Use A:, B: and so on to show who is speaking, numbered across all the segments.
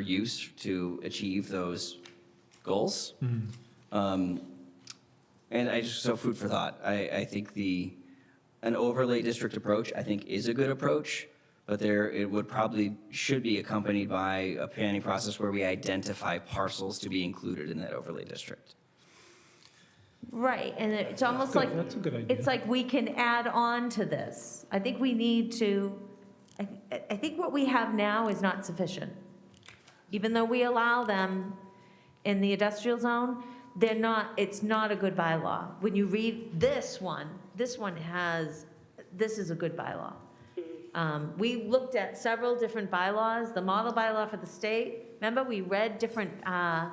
A: use to achieve those goals. Um, and I just, so food for thought. I, I think the, an overlay district approach, I think, is a good approach, but there, it would probably, should be accompanied by a planning process where we identify parcels to be included in that overlay district.
B: Right, and it's almost
C: Good,
B: like,
C: that's a good idea.
B: it's like we can add on to this. I think we need to, I, I think what we have now is not sufficient. Even though we allow them in the industrial zone, they're not, it's not a good bylaw. When you read this one, this one has, this is a good bylaw. Um, We looked at several different bylaws, the model bylaw for the state. Remember, we read different, uh,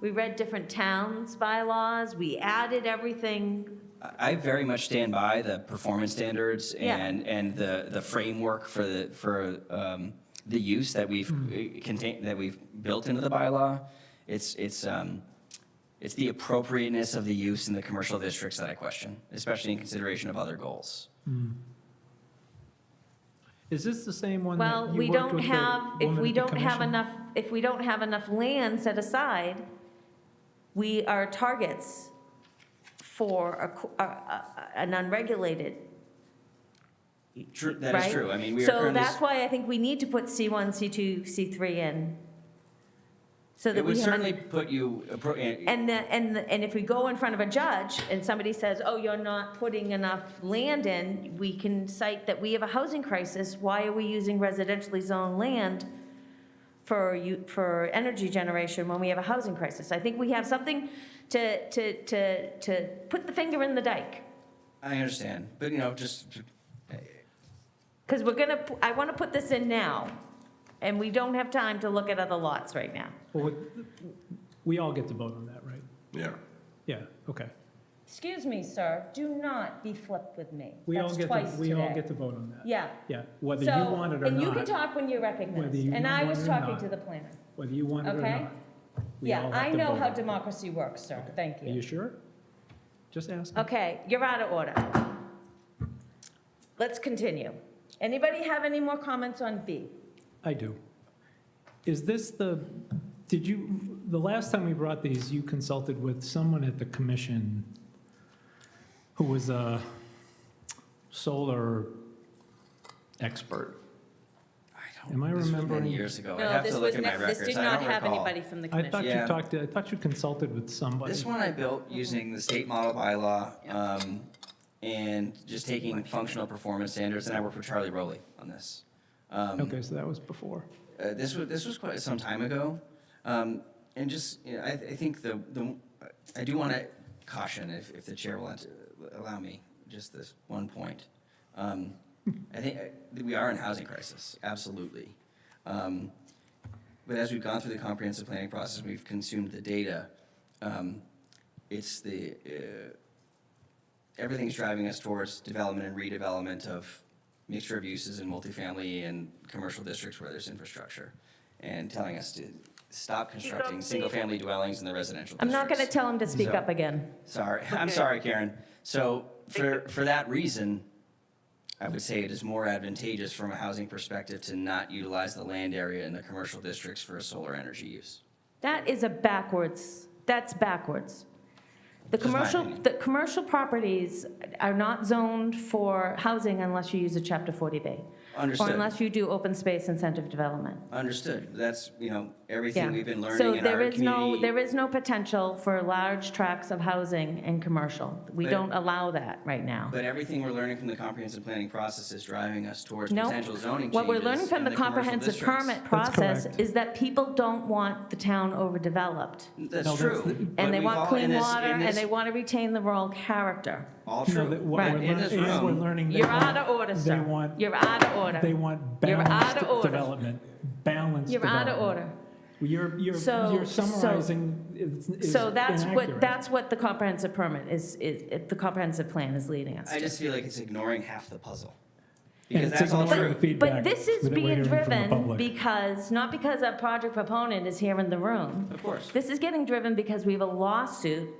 B: we read different towns' bylaws, we added everything.
A: I- I very much stand by the performance standards
B: Yeah.
A: and, and the, the framework for the, for um, the use that we've
B: Hmm.
A: uh, contain, that we've built into the bylaw. It's, it's, um, it's the appropriateness of the use in the commercial districts that I question, especially in consideration of other goals.
C: Is this the same one
B: Well,
C: that you
B: we
C: worked
B: don't
C: with
B: have,
C: the
B: if
C: woman
B: we
C: at the
B: don't have
C: commission?
B: enough, if we don't have enough land set aside, we are targets for a co- a- a- an unregulated
A: True, that is
B: right?
A: true. I mean, we are
B: So
A: currently.
B: that's why I think we need to put C1, C2, C3 in, so that
A: It would
B: we
A: certainly
B: have,
A: put you, appro- eh,
B: and, the- and, the- and if we go in front of a judge and somebody says, oh, you're not putting enough land in, we can cite that we have a housing crisis, why are we using residentially zoned land for you, for energy generation when we have a housing crisis? I think we have something to, to, to, to put the finger in the dike.
A: I understand, but you know, just,
B: Because we're gonna, p- I want to put this in now, and we don't have time to look at other lots right now.
C: Well, we- We all get to vote on that, right?
D: Yeah.
C: Yeah, okay.
B: Excuse me, sir, do not be flipped with me.
C: We all
B: That's
C: get,
B: twice
C: to we all
B: today.
C: get to vote on that.
B: Yeah.
C: Yeah, whether you
B: So-
C: want it or
B: And you can
C: not,
B: talk when you're recognized,
C: Whether you
B: and I
C: want
B: was
C: it or
B: talking
C: not.
B: to the planner.
C: whether you want it or
B: Okay.
C: not. we
B: Yeah,
C: all have
B: I
C: to
B: know
C: vote
B: how
C: on it.
B: democracy works, sir, thank
C: Are you
B: you.
C: sure? Just ask.
B: Okay, you're out of order. Let's continue. Anybody have any more comments on B?
C: I do. Is this the, did you, the last time we brought these, you consulted with someone at the commission who was a solar expert?
A: I don't.
C: Am I
A: this was many
C: remembering-
A: Years ago. I'd
B: No,
A: have
B: this
A: to look
B: was
A: at my
B: not,
A: records.
B: this did
A: I
B: not
A: don't
B: have
A: recall.
B: anybody from the
C: I thought
B: commission.
C: you
A: Yeah.
C: talked, to- I thought you consulted with somebody.
A: This one I built using the state model bylaw, um, and just taking functional performance standards, and I worked with Charlie Rowley on this. Um,
C: Okay, so that was before.
A: uh, this was, this was quite some time ago. Um, and just, you know, I, I think the, the, I do want to caution, if, if the chair will ent- allow me, just this one point. Um, I think uh, we are in housing crisis, absolutely. Um, but as we've gone through the comprehensive planning process, we've consumed the data. Um, it's the, uh, everything's driving us towards development and redevelopment of mixture of uses in multifamily and commercial districts where there's infrastructure, and telling us to stop constructing single-family dwellings in the residential
B: I'm
A: districts.
B: not gonna tell him to speak
A: So-
B: up again.
A: Sorry, I'm sorry, Karen. So for, for that reason, I would say it is more advantageous from a housing perspective to not utilize the land area in the commercial districts for a solar energy use.
B: That is a backwards, that's backwards. The
A: Just my
B: commercial,
A: opinion.
B: the commercial properties are not zoned for housing unless you use a chapter 40B. Or
A: Understood.
B: unless you do open space incentive development.
A: Understood. That's, you know,
B: Yeah.
A: everything we've been
B: So
A: learning in
B: there
A: our
B: is no,
A: community.
B: there is no potential for large tracts of housing and commercial. We
A: But-
B: don't allow that right now.
A: But everything we're learning from the comprehensive planning process is driving us towards
B: No.
A: potential zoning changes.
B: What we're learning from
A: in
B: the
A: commercial
B: comprehensive
A: districts.
B: permit
C: That's
B: process
C: correct.
B: is that people don't want the town overdeveloped.
C: No,
A: That's
C: that's
A: true.
C: the-
A: But
B: And they
A: we've
B: want
A: all-
B: clean
A: in this-
B: water,
A: in
B: and
A: this-
B: they want to retain the rural character.
A: All
C: No,
A: true.
C: that what
B: Right.
C: we're
A: In this
C: learning- is we're
A: room-
C: learning they
B: You're out
C: want-
B: of order,
C: They
B: sir.
C: want,
B: You're out of order.
C: they want
B: You're out
C: balanced
B: of order.
C: development, balanced
B: You're out of
C: development.
B: order.
C: You're, you're,
B: So-
C: you're
B: so-
C: summarizing is is
B: So that's what,
C: inaccurate.
B: that's what the comprehensive permit is, is, it- the comprehensive plan is leading us
A: I
B: to.
A: just feel like it's ignoring half the puzzle.
C: And
A: Because
C: it's
A: that's all
C: ignoring
A: true.
C: the feedback
B: But this is
C: that we're
B: being
C: hearing from the
B: driven
C: public.
B: because, not because our project proponent is here in the room.
A: Of course.
B: This is getting driven because we have a lawsuit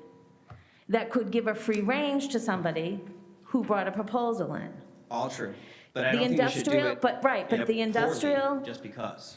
B: that could give a free range to somebody who brought a proposal in.
A: All true. But I
B: The
A: don't think we should do
B: industrial-
A: it
B: but- right,
A: in
B: but
A: a
B: the
A: poorly
B: industrial-
A: Just because.